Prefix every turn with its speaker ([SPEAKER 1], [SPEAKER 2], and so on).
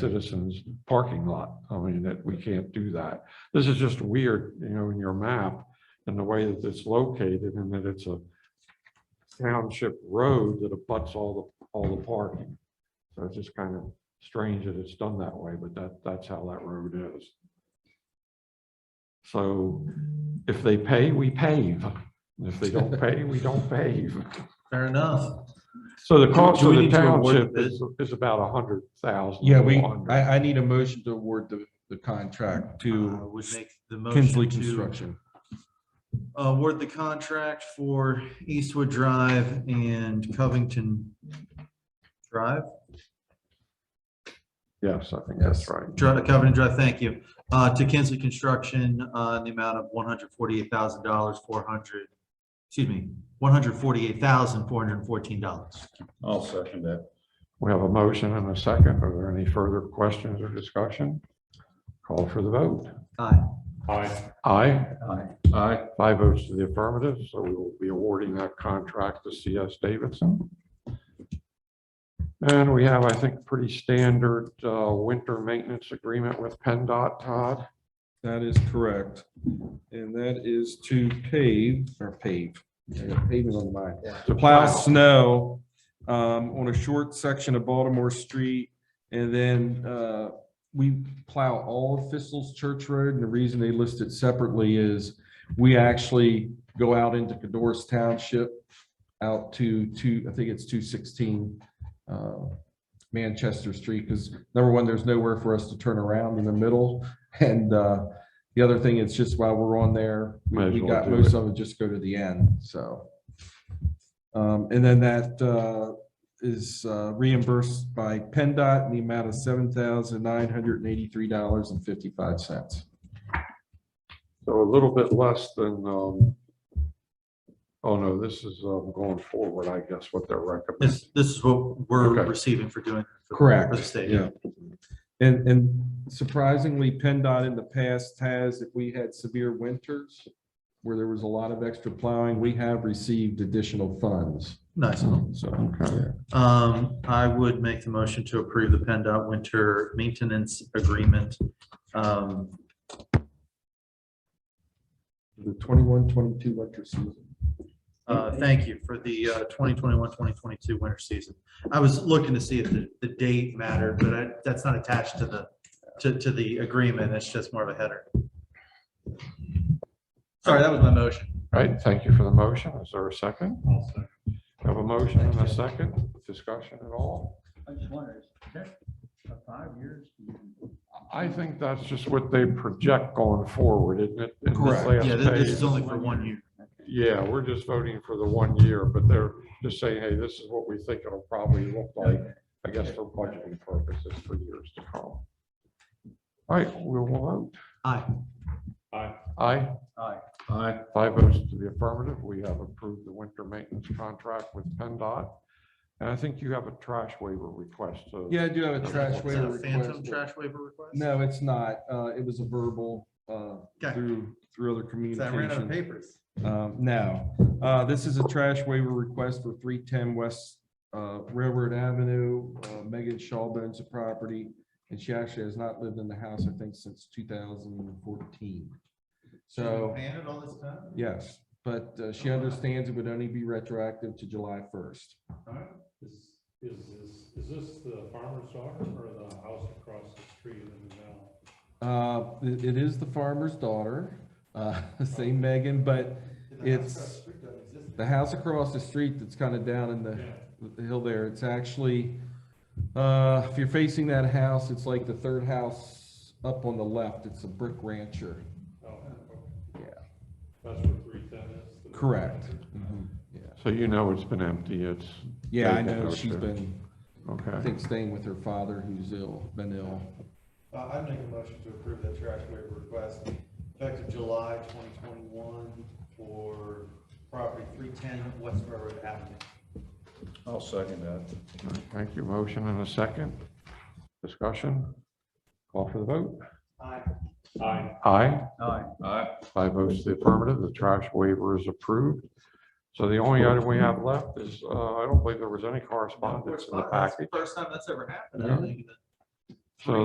[SPEAKER 1] citizens parking lot. I mean, that we can't do that. This is just weird, you know, in your map and the way that it's located and that it's a township road that abuts all the, all the parking. So it's just kind of strange that it's done that way, but that, that's how that road is. So if they pay, we pave. If they don't pay, we don't pave.
[SPEAKER 2] Fair enough.
[SPEAKER 1] So the cost
[SPEAKER 2] Do
[SPEAKER 1] of
[SPEAKER 2] we
[SPEAKER 1] the
[SPEAKER 2] need to award
[SPEAKER 1] township
[SPEAKER 2] this?
[SPEAKER 1] is, is about a hundred thousand.
[SPEAKER 3] Yeah, we, I, I need a motion to award the, the contract
[SPEAKER 2] Uh,
[SPEAKER 3] to
[SPEAKER 2] Would make the
[SPEAKER 3] Kinsley
[SPEAKER 2] motion to uh,
[SPEAKER 3] Construction.
[SPEAKER 2] award the contract for Eastwood Drive and Covington Drive,
[SPEAKER 1] Yes, I think that's right.
[SPEAKER 2] Dri- Covington Drive, thank you, uh, to Kinsley Construction, uh, in the amount of one hundred forty-eight thousand dollars, four hundred, excuse me, one hundred forty-eight thousand, four hundred and fourteen dollars.
[SPEAKER 4] I'll second that.
[SPEAKER 1] We have a motion and a second. Are there any further questions or discussion? Call for the vote.
[SPEAKER 2] Aye.
[SPEAKER 4] Aye.
[SPEAKER 1] Aye,
[SPEAKER 4] Aye.
[SPEAKER 1] five votes to the affirmative, so we will be awarding that contract to CS Davidson. And we have, I think, pretty standard uh, winter maintenance agreement with PennDOT, Todd.
[SPEAKER 3] That is correct. And that is to pave or pave. I got Paving on the mind.
[SPEAKER 1] To
[SPEAKER 3] Plow snow um, on a short section of Baltimore Street. And then uh, we plow all of Thistle's Church Road. And the reason they list it separately is we actually go out into Cadorus Township out to two, I think it's two sixteen uh, Manchester Street. Because number one, there's nowhere for us to turn around in the middle. And uh, the other thing, it's just while we're on there, we-
[SPEAKER 1] Might as
[SPEAKER 3] we
[SPEAKER 1] well
[SPEAKER 3] got
[SPEAKER 1] do
[SPEAKER 3] most
[SPEAKER 1] it.
[SPEAKER 3] of it just go to the end, so. Um, and then that uh, is uh, reimbursed by PennDOT in the amount of seven thousand nine hundred and eighty-three dollars and fifty-five cents.
[SPEAKER 1] So a little bit less than, um, oh no, this is um, going forward, I guess, what they're recommending.
[SPEAKER 2] This, this is what we're
[SPEAKER 1] Okay.
[SPEAKER 2] receiving for doing.
[SPEAKER 3] Correct,
[SPEAKER 2] For the state.
[SPEAKER 3] yeah. And, and surprisingly, PennDOT in the past has, if we had severe winters where there was a lot of extra plowing, we have received additional funds,
[SPEAKER 2] Nice.
[SPEAKER 3] so.
[SPEAKER 2] Um, I would make the motion to approve the PennDOT winter maintenance agreement. Um,
[SPEAKER 3] The twenty-one, twenty-two winter season.
[SPEAKER 2] uh, thank you for the, uh, 2021-2022 winter season. I was looking to see if the, the date mattered, but I, that's not attached to the, to, to the agreement. It's just more of a header. Sorry, that was my motion.
[SPEAKER 1] All right, thank you for the motion. Is there a second? Have a motion and a second, discussion at all?
[SPEAKER 5] I just wondered, is that for five years?
[SPEAKER 1] I think that's just what they project going forward, isn't it? In this
[SPEAKER 3] Correct.
[SPEAKER 1] last
[SPEAKER 2] Yeah, this, this is
[SPEAKER 1] page.
[SPEAKER 2] only for one year.
[SPEAKER 1] Yeah, we're just voting for the one year, but they're just saying, hey, this is what we think it'll probably look like, I guess for budgeting purposes for years to come. All right, we'll vote.
[SPEAKER 2] Aye.
[SPEAKER 1] Aye.
[SPEAKER 5] Aye.
[SPEAKER 4] Aye.
[SPEAKER 1] Five votes to the affirmative, we have approved the winter maintenance contract with PennDOT. And I think you have a trash waiver request, so.
[SPEAKER 3] Yeah, I do have a trash
[SPEAKER 2] Is that
[SPEAKER 3] waiver
[SPEAKER 2] a Phantom
[SPEAKER 3] request.
[SPEAKER 2] trash waiver request?
[SPEAKER 3] No, it's not. Uh, it was a verbal, uh,
[SPEAKER 2] Okay.
[SPEAKER 3] through, through other
[SPEAKER 2] 'Cause I ran out of
[SPEAKER 3] communication.
[SPEAKER 2] papers.
[SPEAKER 3] Um, no, uh, this is a trash waiver request for three ten West, uh, Railroad Avenue. Uh, Megan Shaw owns the property and she actually has not lived in the house, I think, since two thousand and fourteen. So,
[SPEAKER 2] Paying it all this time?
[SPEAKER 3] yes, but uh, she understands it would only be retroactive to July first.
[SPEAKER 6] Is, is this, is this the farmer's daughter or the house across the street in the now?
[SPEAKER 3] Uh, it, it is the farmer's daughter, uh, same Megan, but it's the house across the street that's kind of down in the, the hill there. It's actually, uh, if you're facing that house, it's like the third house up on the left. It's a brick rancher.
[SPEAKER 6] Oh,
[SPEAKER 3] Yeah.
[SPEAKER 6] okay. That's where three ten is? the-
[SPEAKER 3] Correct. Mm-hmm.
[SPEAKER 1] So you know it's been empty, it's.
[SPEAKER 3] Yeah, I
[SPEAKER 1] they've been
[SPEAKER 3] know.
[SPEAKER 1] out
[SPEAKER 3] She's
[SPEAKER 1] there.
[SPEAKER 3] been, I
[SPEAKER 1] Okay,
[SPEAKER 3] think, staying with her father who's ill, been ill.
[SPEAKER 2] Uh, I make a motion to approve that trash waiver request effective July twenty twenty-one for property three ten West Railroad Avenue.
[SPEAKER 4] I'll second that.
[SPEAKER 1] thank you, motion and a second, discussion, call for the vote.
[SPEAKER 2] Aye.
[SPEAKER 6] Aye.
[SPEAKER 1] Aye.
[SPEAKER 5] Aye.
[SPEAKER 4] Aye.
[SPEAKER 1] Five votes to the affirmative, the trash waiver is approved. So the only item we have left is, uh, I don't believe there was any correspondence in the
[SPEAKER 2] That's
[SPEAKER 1] package.
[SPEAKER 2] the First time that's ever happened, I
[SPEAKER 1] Yeah.
[SPEAKER 2] think.
[SPEAKER 1] So